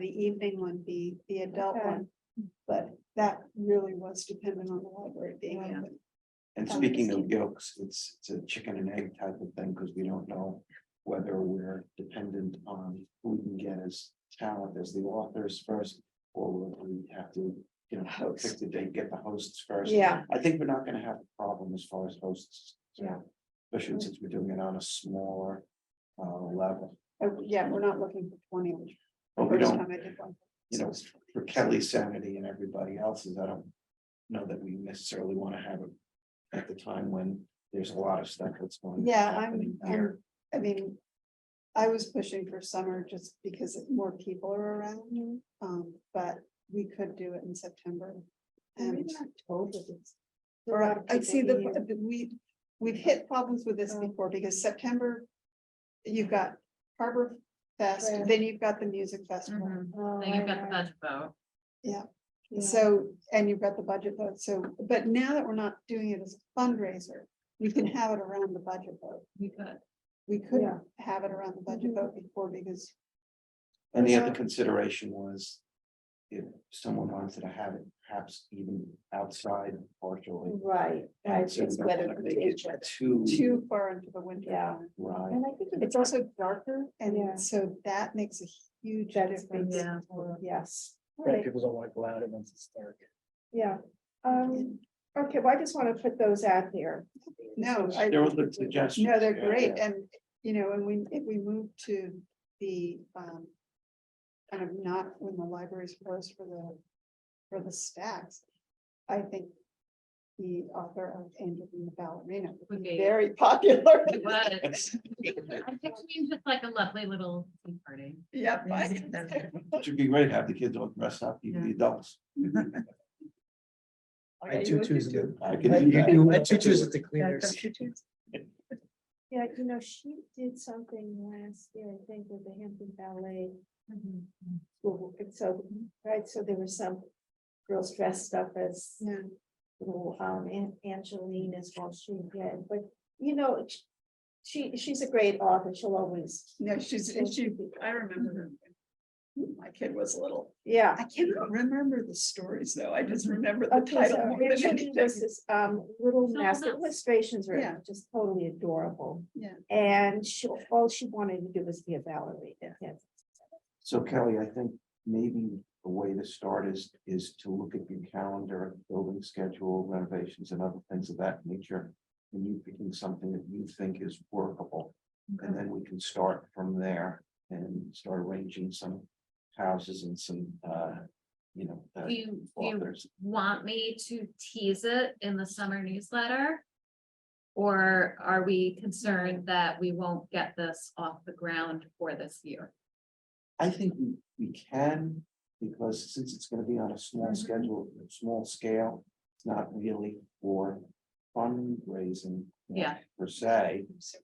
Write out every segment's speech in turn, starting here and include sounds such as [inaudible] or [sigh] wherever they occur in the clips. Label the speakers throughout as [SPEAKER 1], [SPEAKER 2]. [SPEAKER 1] the evening one be the adult
[SPEAKER 2] Okay.
[SPEAKER 1] one. But that really was dependent on the library being
[SPEAKER 2] Yeah.
[SPEAKER 1] open.
[SPEAKER 3] And
[SPEAKER 1] Um,
[SPEAKER 3] speaking of
[SPEAKER 1] Steve.
[SPEAKER 3] yolks, it's, it's a chicken and egg type of thing, because we don't know whether we're dependent on who we can get as talent as the authors first, or whether we have to, you know, pick the date, get the hosts first.
[SPEAKER 1] Yeah,
[SPEAKER 3] I think we're not gonna have a problem as far as hosts. so,
[SPEAKER 2] Yeah.
[SPEAKER 3] Especially since we're doing it on a smaller uh level.
[SPEAKER 1] oh, yeah, we're not looking for twenty, which
[SPEAKER 3] But we
[SPEAKER 1] first
[SPEAKER 3] don't,
[SPEAKER 1] time I did one.
[SPEAKER 3] you know, for Kelly's sanity and everybody else's, I don't know that we necessarily want to have it at the time when there's a lot of stuff that's going. to
[SPEAKER 1] Yeah,
[SPEAKER 3] happen
[SPEAKER 1] I'm,
[SPEAKER 3] here.
[SPEAKER 1] I'm, I mean, I was pushing for summer just because more people are around, um, but we could do it in September. And, or I see the, the- we, we've hit problems with this
[SPEAKER 2] E Oh.
[SPEAKER 1] before because September, you've got Harbor Fest,
[SPEAKER 2] Fair.
[SPEAKER 1] then you've got the music festival.
[SPEAKER 2] Oh,
[SPEAKER 4] Then you've got the budget vote.
[SPEAKER 1] uh, So, and you've got the budget vote, so, but now that we're not doing it as a fundraiser, we can have it around the budget vote.
[SPEAKER 4] You could.
[SPEAKER 1] We could
[SPEAKER 2] Yeah.
[SPEAKER 1] have it around the budget
[SPEAKER 2] Mhm.
[SPEAKER 1] vote before because,
[SPEAKER 3] And the
[SPEAKER 1] Yeah.
[SPEAKER 3] other consideration was if someone wanted to have it perhaps even outside partially.
[SPEAKER 2] Right, Mm, right,
[SPEAKER 3] so we
[SPEAKER 2] it's
[SPEAKER 3] don't
[SPEAKER 2] weather
[SPEAKER 3] wanna make it
[SPEAKER 2] conditions.
[SPEAKER 3] Too
[SPEAKER 1] too far into the winter.
[SPEAKER 2] Yeah.
[SPEAKER 1] time. [laughs]
[SPEAKER 3] right.
[SPEAKER 2] And I think
[SPEAKER 1] It's also darker
[SPEAKER 2] Yeah.
[SPEAKER 1] and so that makes a huge
[SPEAKER 2] That's-
[SPEAKER 1] difference.
[SPEAKER 4] yeah.
[SPEAKER 1] for-
[SPEAKER 2] Yes. All
[SPEAKER 5] Yeah,
[SPEAKER 2] right.
[SPEAKER 5] people don't like loud events, it's dark.
[SPEAKER 2] Yeah, um, okay, well, I just want to put those out there.
[SPEAKER 1] No, Oh, I,
[SPEAKER 3] There was a suggestion.
[SPEAKER 1] no, they're great. And, you know, and we, if we move to the, um, kind of not when the libraries closed for the, for the stacks, I think the author of Angel and the Ballerina would
[SPEAKER 4] Would
[SPEAKER 1] be
[SPEAKER 4] be-
[SPEAKER 1] very [laughs] popular.
[SPEAKER 4] It was. I'm picturing just like a lovely little tea party.
[SPEAKER 1] Yep. I-
[SPEAKER 3] Which would be great, have the kids all dressed up, even the adults.
[SPEAKER 5] I tutus do.
[SPEAKER 3] I
[SPEAKER 5] I
[SPEAKER 3] can do that.
[SPEAKER 5] do- I tutus at the cleaners.
[SPEAKER 2] Yeah, you know, she did something last year, I think, with the Hampton Ballet.
[SPEAKER 4] Mm-hmm.
[SPEAKER 2] School, and so, right, so there were some girls dressed up as
[SPEAKER 1] Yeah.
[SPEAKER 2] little um An- Angelinas while she did, but you know, sh- she she's a great author, she'll always.
[SPEAKER 1] [laughs] No, she's, and she, I remember her. when My kid was little.
[SPEAKER 2] Yeah.
[SPEAKER 1] I cannot remember the stories though. I just remember the
[SPEAKER 2] Okay,
[SPEAKER 1] title.
[SPEAKER 2] so
[SPEAKER 1] more than
[SPEAKER 2] Rachel
[SPEAKER 1] anything.
[SPEAKER 2] Lewis's, um, Little
[SPEAKER 4] Little
[SPEAKER 2] Nest the
[SPEAKER 4] Mouse.
[SPEAKER 2] illustrations
[SPEAKER 1] Yeah.
[SPEAKER 2] are just totally adorable.
[SPEAKER 1] Yeah.
[SPEAKER 2] And she, all she wanted to do was be a ballerina. Yes.
[SPEAKER 3] So Kelly, I think maybe a way to start is, is to look at your calendar, building schedule, renovations and other things of that nature. And you picking something that you think is workable, and then we can start from there and start arranging some houses and some, uh, you know. uh,
[SPEAKER 4] Do you, do you
[SPEAKER 3] Authors,
[SPEAKER 4] want me to tease it in the summer newsletter? Or are we concerned that we won't get this off the ground for this year?
[SPEAKER 3] I think we, we can, because since it's gonna be on a small
[SPEAKER 4] Mhm.
[SPEAKER 3] schedule, small scale, it's not really for fundraising. you know,
[SPEAKER 4] Yeah.
[SPEAKER 3] Per se.
[SPEAKER 1] So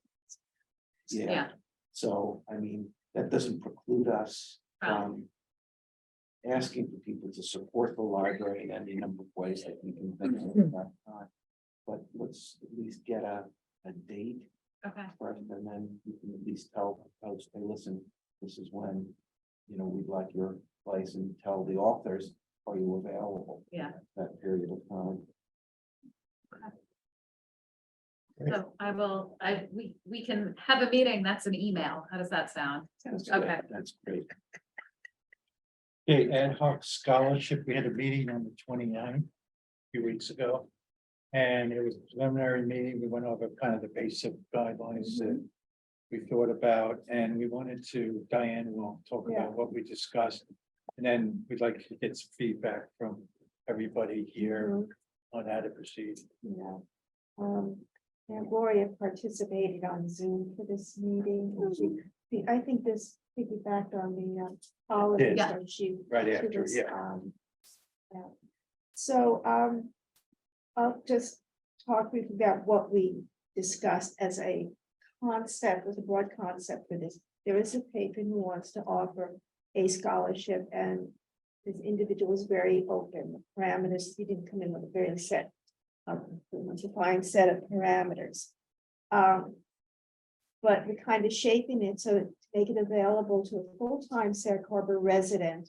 [SPEAKER 3] Yeah,
[SPEAKER 4] Yeah.
[SPEAKER 3] so, I mean, that doesn't preclude us
[SPEAKER 4] Oh.
[SPEAKER 3] from. Asking for people to support the library in any number of ways that we can think of at that time. But let's at least get a, a date
[SPEAKER 4] Okay,
[SPEAKER 3] first, and then you can at least tell folks, hey, listen, this is when. You know, we'd like your place and tell the authors, are you available?
[SPEAKER 4] Yeah.
[SPEAKER 3] at That period of time.
[SPEAKER 4] so I will, I, we, we can have a meeting, that's an email, how does that sound?
[SPEAKER 3] That's good,
[SPEAKER 4] Okay.
[SPEAKER 3] That's great.
[SPEAKER 5] [laughs] Okay, ad hoc scholarship, we had a meeting on the 29th a few weeks ago. And it was a preliminary meeting, we went over kind of the basic guidelines that
[SPEAKER 3] Mm-hmm.
[SPEAKER 5] we thought about, and we wanted to, Diane will talk
[SPEAKER 2] Yeah.
[SPEAKER 5] about what we discussed. And then we'd like to get some feedback from everybody here
[SPEAKER 2] Mhm.
[SPEAKER 3] Mm-hmm.
[SPEAKER 5] on how to proceed.
[SPEAKER 2] You know, um, and Gloria participated on Zoom for this meeting. and she- the- I think this piggybacked on the um, holidays
[SPEAKER 4] Yeah.
[SPEAKER 2] when she.
[SPEAKER 5] Right
[SPEAKER 2] she
[SPEAKER 5] after,
[SPEAKER 2] was,
[SPEAKER 5] yeah.
[SPEAKER 2] um, yeah. So, um, I'll just talk briefly about what we discussed as a concept, as a broad concept for this. There is a patron who wants to offer a scholarship and this individual is very open parameters. He didn't come in with a very set, um, defined set of parameters. Um, but we're kind of shaping it so make it available to a full-time Sag Harbor resident